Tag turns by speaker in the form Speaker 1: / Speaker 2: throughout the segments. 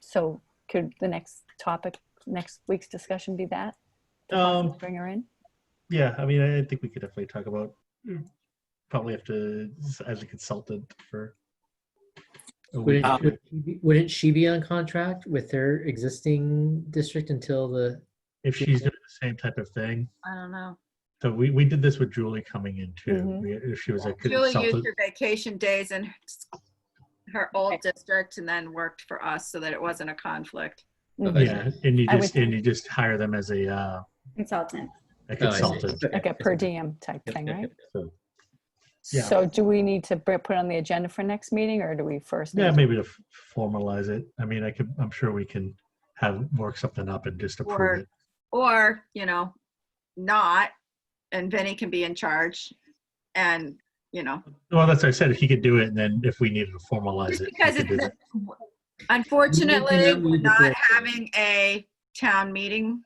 Speaker 1: So could the next topic, next week's discussion be that?
Speaker 2: Um,
Speaker 1: Bring her in?
Speaker 2: yeah, I mean, I think we could definitely talk about, probably have to, as a consultant for,
Speaker 3: a
Speaker 4: Would
Speaker 3: week.
Speaker 4: it, would she be- wouldn't she be on contract with her existing district until the?
Speaker 2: if she's doing the same type of thing.
Speaker 5: I don't know.
Speaker 2: So we, we did this with Julie coming in too.
Speaker 1: Mhm.
Speaker 2: We- If she was a
Speaker 5: Mm-hmm. Julie used
Speaker 2: consultant.
Speaker 5: her vacation days in her old district and then worked for us so that it wasn't a conflict.
Speaker 1: Mm-hmm.
Speaker 3: Okay.
Speaker 2: Yeah, and you
Speaker 1: I would
Speaker 2: just, and you just hire them as a, uh,
Speaker 6: consultant.
Speaker 2: a
Speaker 4: Oh, I see.
Speaker 2: consultant.
Speaker 1: Like a per diem type thing, right?
Speaker 2: So, Yeah.
Speaker 1: So do we need to br- put it on the agenda for next meeting or do we first? need
Speaker 2: Yeah,
Speaker 1: to-
Speaker 2: maybe to f- formalize it. I mean, I could, I'm sure we can have, work something up and just
Speaker 5: Or-
Speaker 2: approve it.
Speaker 5: Or, you know, not, and Vinny can be in charge. And, you know,
Speaker 2: Well, that's what I said. He could do it and then if we needed to formalize
Speaker 5: just
Speaker 2: it.
Speaker 5: because
Speaker 2: we could do
Speaker 5: it's,
Speaker 2: that.
Speaker 5: unfortunately,
Speaker 4: that
Speaker 5: we're
Speaker 4: week
Speaker 5: not
Speaker 4: before.
Speaker 5: having a town meeting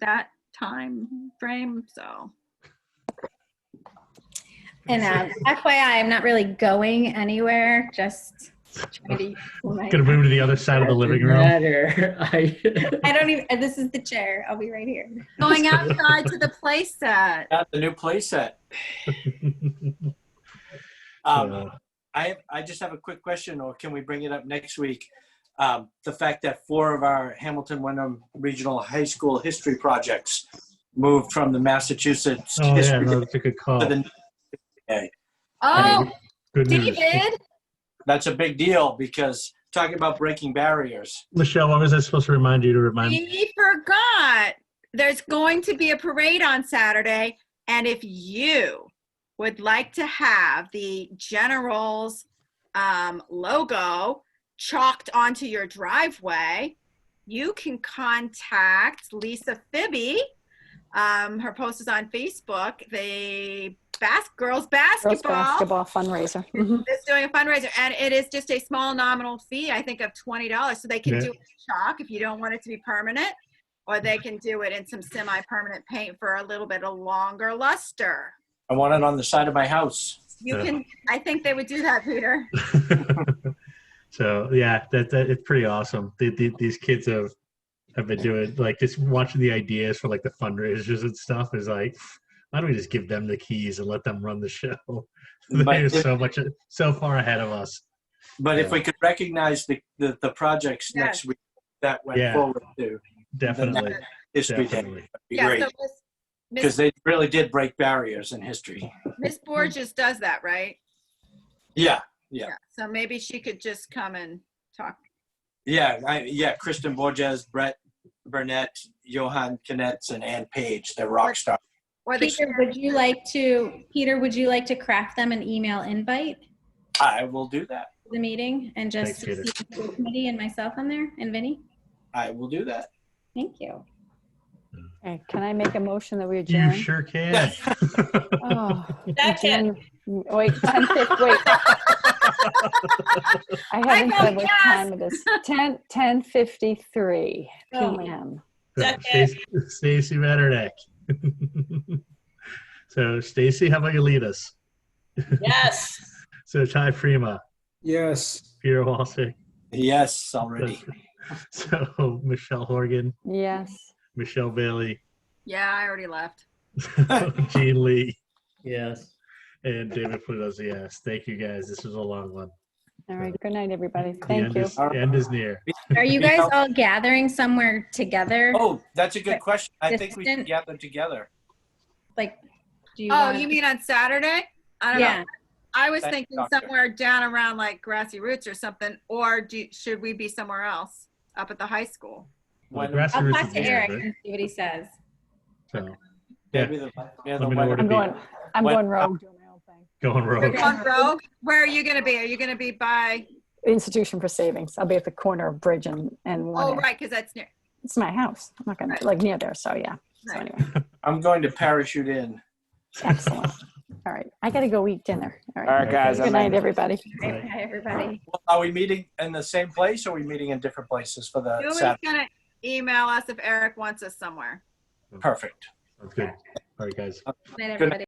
Speaker 5: that time frame, so.
Speaker 6: And um, FYI, I'm not really going anywhere, just trying to. my-
Speaker 2: Gonna move to the other side of the living room.
Speaker 4: Matter. I,
Speaker 6: I don't even, uh, this is the chair. I'll be right here.
Speaker 2: Mm.
Speaker 5: Going outside to the playset.
Speaker 7: Got the new playset.
Speaker 5: Oh,
Speaker 7: Um,
Speaker 2: Uh,
Speaker 7: I, I just have a quick question, or can we bring it up next week? Um, the fact that four of our Hamilton Wyndham Regional High School history projects moved from the Massachusetts
Speaker 2: Oh, yeah,
Speaker 7: history
Speaker 2: no, that's a good call.
Speaker 7: to the,
Speaker 5: Oh,
Speaker 2: Good news.
Speaker 5: David,
Speaker 7: that's a big deal because talking about breaking barriers.
Speaker 2: Michelle, what was I supposed to remind you to remind?
Speaker 5: we forgot. There's going to be a parade on Saturday. And if you would like to have the General's um, logo chalked onto your driveway, you can contact Lisa Fibby. Um, her post is on Facebook. The bas-
Speaker 1: Girls
Speaker 5: girls basketball
Speaker 1: basketball fundraiser.
Speaker 6: Mm-hmm.
Speaker 1: Mhm.
Speaker 5: is doing a fundraiser and it is just a small nominal fee i think of $20 so they can
Speaker 2: Yeah.
Speaker 5: do it in chalk if you don't want it to be permanent or they can do it in some semi-permanent paint for a little bit of longer luster
Speaker 7: I want it on the side of my house.
Speaker 5: you
Speaker 2: Yeah.
Speaker 5: can i think they would do that peter
Speaker 2: so yeah, that, that it's pretty awesome. The, the, these kids have have been doing like just watching the ideas for like the fundraisers and stuff is like, why don't we just give them the keys and let them run the show?
Speaker 7: But
Speaker 2: They're
Speaker 7: if,
Speaker 2: so much so far ahead of us.
Speaker 7: but if we could recognize the, the, the projects
Speaker 5: Yes.
Speaker 7: next week that went
Speaker 2: Yeah.
Speaker 7: forward to
Speaker 2: Definitely,
Speaker 7: history day,
Speaker 2: definitely.
Speaker 7: that'd be great.
Speaker 5: so miss,
Speaker 7: Because
Speaker 5: miss,
Speaker 7: they really did break barriers in history.
Speaker 5: miss borges does that right
Speaker 7: Yeah, Yeah.
Speaker 5: so maybe she could just come and talk
Speaker 7: Yeah, I, yeah. Kristen Borges, Brett Burnett, Johan Knetz, and Ann Page. They're rock stars.
Speaker 5: or the
Speaker 6: Peter, would you like to, Peter, would you like to craft them an email invite
Speaker 7: I will do that.
Speaker 6: for the meeting and just
Speaker 2: Thanks, Peter.
Speaker 6: CC the committee and myself on there and Vinny?
Speaker 7: I will do that.
Speaker 6: Thank you.
Speaker 1: Okay, Can I make a motion that we
Speaker 2: You
Speaker 1: adjourn?
Speaker 2: sure can.
Speaker 1: Oh,
Speaker 6: Second.
Speaker 1: adjourn- Wait, 10, fif- wait. I haven't
Speaker 5: vote
Speaker 1: said what
Speaker 5: yes.
Speaker 1: time it is. 10, 10:53
Speaker 6: Oh.
Speaker 1: PM.
Speaker 2: Stacy Stacy Metternich. so Stacy, how about you lead us?
Speaker 8: Yes.
Speaker 2: So Ty Freema,
Speaker 3: Yes.
Speaker 2: Peter Walsick,
Speaker 7: Yes, already.
Speaker 2: so Michelle Horgan,
Speaker 1: Yes.
Speaker 2: Michelle Bailey,
Speaker 5: yeah i already left
Speaker 2: Gene Lee,
Speaker 4: yes.
Speaker 2: and David Pluto's yes. Thank you guys. This was a long one.
Speaker 1: All right. Good night, everybody.
Speaker 2: The
Speaker 1: Thank
Speaker 2: end
Speaker 1: you.
Speaker 2: Is, the end is near.
Speaker 6: Are you
Speaker 7: Yeah.
Speaker 6: guys all gathering somewhere together?
Speaker 7: Oh, that's a good question. I think we can
Speaker 6: Assistant.
Speaker 7: gather together.
Speaker 6: Like, do you
Speaker 5: oh
Speaker 6: want?
Speaker 5: you mean on saturday i don't know
Speaker 6: Yeah,
Speaker 5: I was
Speaker 7: Thank you,
Speaker 5: thinking
Speaker 7: Doctor.
Speaker 5: somewhere down around like Grassy Roots or something, or do, should we be somewhere else up at the high school?
Speaker 2: Well,
Speaker 7: When-
Speaker 2: grassy
Speaker 6: I'll
Speaker 2: roots
Speaker 6: talk
Speaker 2: is
Speaker 6: to
Speaker 2: near,
Speaker 6: Eric
Speaker 2: but-
Speaker 6: and see what he says.
Speaker 2: so
Speaker 7: Maybe the, yeah, the
Speaker 2: Let me know
Speaker 7: weather-
Speaker 2: where to
Speaker 1: I'm
Speaker 2: be.
Speaker 1: going, I'm
Speaker 7: What-
Speaker 1: going rogue, doing my own thing.
Speaker 2: going
Speaker 5: We're
Speaker 2: rogue.
Speaker 5: going rogue. Where are you going to be? Are you going to be by?
Speaker 1: Institution for Savings. I'll be at the corner of Bridge and, and
Speaker 5: Oh,
Speaker 1: one.
Speaker 5: right, because that's near.
Speaker 1: It's my house. I'm not gonna, like, near there, so yeah. So
Speaker 5: Right.
Speaker 1: anyway,
Speaker 7: I'm going to parachute in.
Speaker 1: excellent. All right. I gotta go eat dinner.
Speaker 8: All
Speaker 1: All right.
Speaker 8: right, guys.
Speaker 1: Good
Speaker 8: I'm
Speaker 1: night,
Speaker 8: in.
Speaker 1: everybody.
Speaker 6: Right, Hi, everybody.
Speaker 7: Are we meeting in the same place or are we meeting in different places for the
Speaker 5: Julie's
Speaker 7: Saturday?
Speaker 5: going to email us if Eric wants us somewhere.
Speaker 7: Perfect.
Speaker 2: That's good. All right, guys.
Speaker 6: Good night, everybody.